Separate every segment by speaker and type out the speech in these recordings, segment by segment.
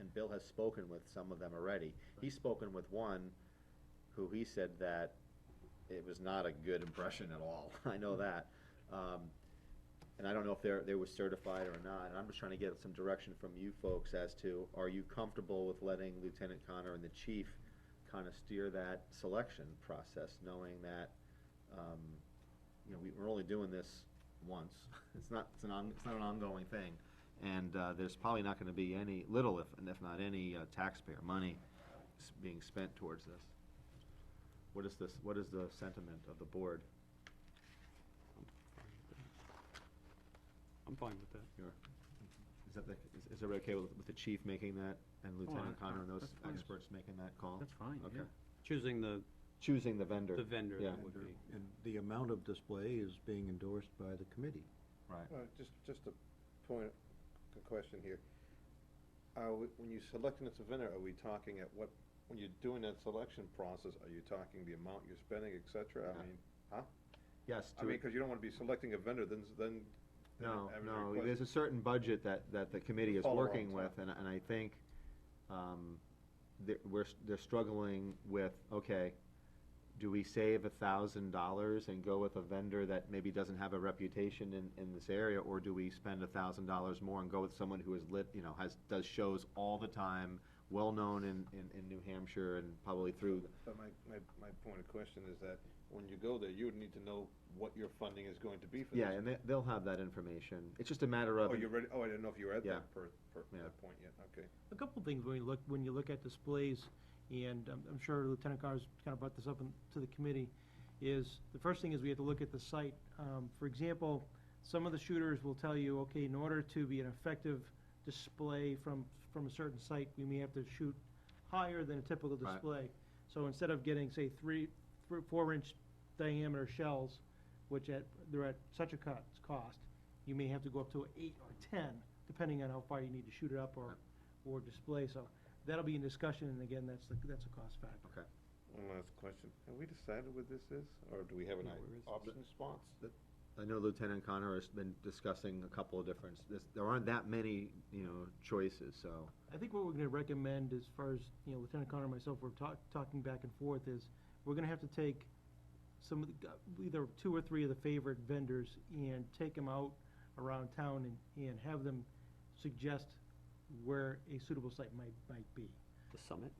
Speaker 1: and Bill has spoken with some of them already. He's spoken with one who he said that it was not a good impression at all, I know that. Um, And I don't know if they're, they were certified or not, and I'm just trying to get some direction from you folks as to, are you comfortable with letting Lieutenant Connor and the chief kind of steer that selection process, knowing that, um, you know, we, we're only doing this once. It's not, it's an on, it's not an ongoing thing. And, uh, there's probably not gonna be any, little if, if not any, uh, taxpayer money s- being spent towards this. What is this, what is the sentiment of the board?
Speaker 2: I'm fine with that.
Speaker 1: Your, is that the, is, is everybody okay with, with the chief making that and Lieutenant
Speaker 2: I-
Speaker 1: Connor and those
Speaker 2: that's fine.
Speaker 1: experts making that call?
Speaker 2: That's fine,
Speaker 1: Okay.
Speaker 2: yeah. Choosing the,
Speaker 1: Choosing the vendor.
Speaker 2: the vendor
Speaker 1: Yeah,
Speaker 2: that would be.
Speaker 3: And the amount of display is being endorsed by the committee.
Speaker 1: right.
Speaker 4: Uh, Just, just a point, a question here. Are, we- when you're selecting this vendor, are we talking at what, when you're doing that selection process, are you talking the amount you're spending, et cetera?
Speaker 1: Yeah.
Speaker 4: I mean, huh?
Speaker 1: Yes,
Speaker 4: I
Speaker 1: to,
Speaker 4: mean, because you don't want to be selecting a vendor, then, s- then. then
Speaker 1: no,
Speaker 4: having a
Speaker 1: no,
Speaker 4: request.
Speaker 1: there's a certain budget that, that the committee is
Speaker 4: Follow on
Speaker 1: working
Speaker 4: to
Speaker 1: with, and, and I think, um, that we're, s- they're struggling with, okay, do we save a thousand dollars and go with a vendor that maybe doesn't have a reputation in, in this area, or do we spend a thousand dollars more and go with someone who is lit, you know, has, does shows all the time, well-known in, in, in New Hampshire and probably through,
Speaker 4: But my, my, my point of question is that when you go there, you would need to know what your funding is going to be for this.
Speaker 1: yeah, and they, they'll have that information. It's just a matter of.
Speaker 4: Oh, you're ready, oh, I didn't know if you were at
Speaker 1: Yeah.
Speaker 4: that per, per,
Speaker 1: Yeah.
Speaker 4: that point yet, okay.
Speaker 5: A couple of things when you look, when you look at displays, and um, I'm, I'm sure Lieutenant Carr's kind of brought this up in- to the committee, is, the first thing is we have to look at the site. Um, for example, some of the shooters will tell you, okay, in order to be an effective display from, from a certain site, we may have to shoot higher than a typical
Speaker 1: Right.
Speaker 5: display. So instead of getting, say, three, three, four inch diameter shells, which at, they're at such a cut, cost, you may have to go up to eight or ten, depending on how far you need to shoot it up or, or display, so that'll be in discussion, and again, that's, the that's a cost factor.
Speaker 1: Okay.
Speaker 4: One last question. Have we decided what this is, or do we have an
Speaker 2: No, where is this?
Speaker 4: option response?
Speaker 1: I know Lieutenant Connor has been discussing a couple of different, there's- there aren't that many, you know, choices, so.
Speaker 5: I think what we're gonna recommend as far as, you know, Lieutenant Connor and myself were talk, talking back and forth is, we're gonna have to take some of the, gu- either two or three of the favorite vendors and take them out around town and, and have them suggest where a suitable site might, might be.
Speaker 2: The summit?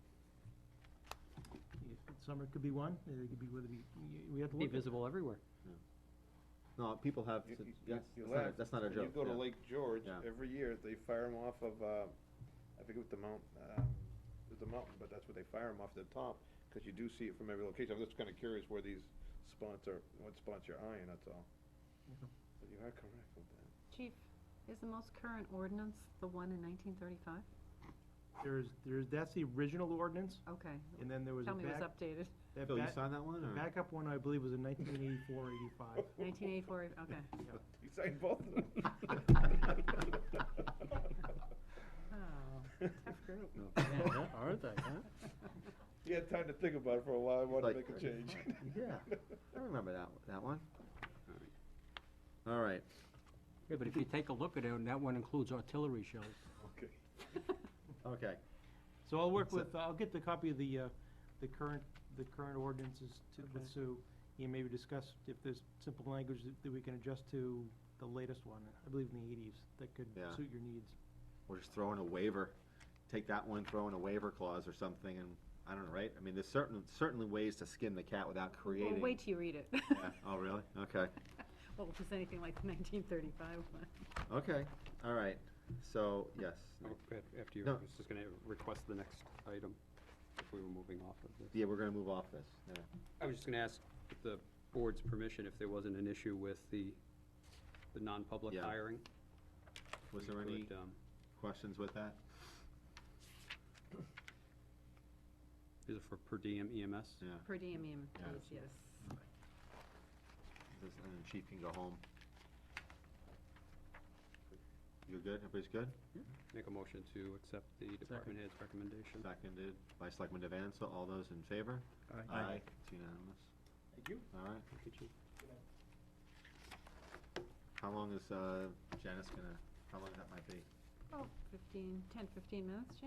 Speaker 5: Summer could be one, it could be whether we, we have to
Speaker 2: Be
Speaker 5: look at.
Speaker 2: visible everywhere.
Speaker 1: No, people have,
Speaker 4: You-
Speaker 1: to-
Speaker 4: you-
Speaker 1: yes,
Speaker 4: you
Speaker 1: that's not, a-
Speaker 4: laugh.
Speaker 1: that's not a
Speaker 4: When
Speaker 1: joke.
Speaker 4: You go to
Speaker 1: yeah.
Speaker 4: Lake George,
Speaker 1: Yeah.
Speaker 4: every year, they fire them off of, uh, I forget what the mount, um, it's a mountain, but that's where they fire them off the top, because you do see it from every location. I'm just kind of curious where these spots are, what spots you're eyeing, that's all. But you are correct with that.
Speaker 6: Chief, is the most current ordinance the one in nineteen thirty-five?
Speaker 5: There's, there's, that's the original ordinance,
Speaker 6: Okay.
Speaker 5: and then there was a
Speaker 6: Tell me it was
Speaker 5: back,
Speaker 6: updated.
Speaker 5: that
Speaker 1: Phil, you
Speaker 5: back-
Speaker 1: signed that one,
Speaker 5: the
Speaker 1: or?
Speaker 5: backup one, I believe, was in 1984, 85.
Speaker 6: Nineteen eighty-four, okay.
Speaker 4: You signed both of them.
Speaker 6: Oh, tough group.
Speaker 2: Aren't they, huh?
Speaker 4: You had time to think about it for a while, I wanted to
Speaker 1: Like- uh,
Speaker 4: make a change.
Speaker 1: Yeah, I remember that, that one. All right,
Speaker 2: Yeah, but if you take a look at it, and that one includes artillery shells.
Speaker 4: Okay.
Speaker 1: okay.
Speaker 5: So I'll work
Speaker 1: So-
Speaker 5: with, I'll get the copy of the, uh, the current, the current ordinances to, with Sue, and maybe discuss if there's simple language that- that we can adjust to the latest one, I believe in the 80s, that could
Speaker 1: Yeah.
Speaker 5: suit your needs.
Speaker 1: We're just throwing a waiver, take that one, throw in a waiver clause or something, and, I don't know, right? I mean, there's certain, certainly ways to skin the cat without
Speaker 6: Well,
Speaker 1: creating.
Speaker 6: wait till you read it.
Speaker 1: Yeah, Oh, really? Okay.
Speaker 6: Well, if it's anything like the nineteen thirty-five one.
Speaker 1: Okay, all right, so, yes.
Speaker 2: Oh, After you, I
Speaker 1: No.
Speaker 2: was just gonna request the next item, if we were moving off of this.
Speaker 1: Yeah, we're gonna move off this, yeah.
Speaker 2: I was just gonna ask with the board's permission if there wasn't an issue with the, the non-public
Speaker 1: Yeah.
Speaker 2: hiring.
Speaker 1: Was
Speaker 2: We
Speaker 1: there any
Speaker 2: could, um,
Speaker 1: questions with that?
Speaker 2: Is it for per diem E EMS?
Speaker 1: Yeah.
Speaker 6: Per diem, em-
Speaker 1: Yeah.
Speaker 6: yes.
Speaker 1: This- And then chief can go home. You're good? Everybody's good?
Speaker 2: Make a motion to accept the department head's recommendation.
Speaker 1: Seconded by Selectman Devanza. All those in favor?
Speaker 5: Aye.
Speaker 1: It's unanimous.
Speaker 2: Thank you.
Speaker 1: All right. How long is uh, Janice gonna, how long that might be?
Speaker 6: Oh, fifteen, ten, fifteen minutes, Jim?